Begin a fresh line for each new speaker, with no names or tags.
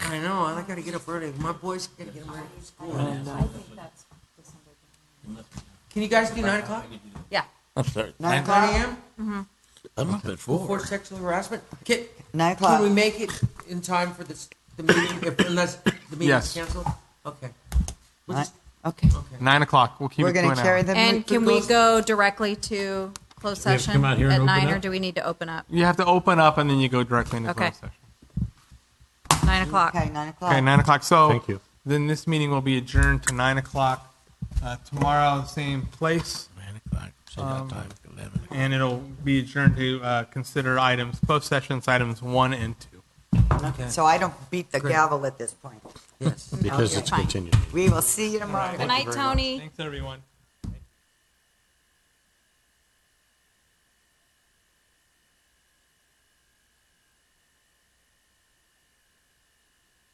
I know, I gotta get up early. My boys gotta get up early from school. And, uh,
I think that's December.
Can you guys do nine o'clock?
Yeah,
I'm sorry.
Nine
Nine
o'clock.
AM
I'm up at
for
four.
sexual harassment? Can,
Nine
can we
o'clock.
make it in time for this, the meeting, if, unless the meeting's
Yes.
canceled? Okay. We'll
Nine-
just-
Okay.
Okay.
Nine o'clock. We'll keep
We're
it to
gonna
an
carry
hour.
them.
and can we go directly to closed
Do we have to
session
come out here
at
and open
nine, or
up?
do we need to open up?
You have to open up and then you go directly into
Okay.
closed session.
Nine o'clock.
Okay, nine o'clock.
Okay, nine o'clock. So
Thank you.
Then this meeting will be adjourned to nine o'clock uh, tomorrow, same place,
Nine o'clock. So that time, eleven. o'clock.
and it'll be adjourned to uh, consider items closed sessions, items one and two.
Okay.
So I don't beat the gavel at this point.
Yes.
Because
Okay.
it's
Fine.
continued.
We will see you tomorrow.
Good night, Tony.
Thanks, everyone.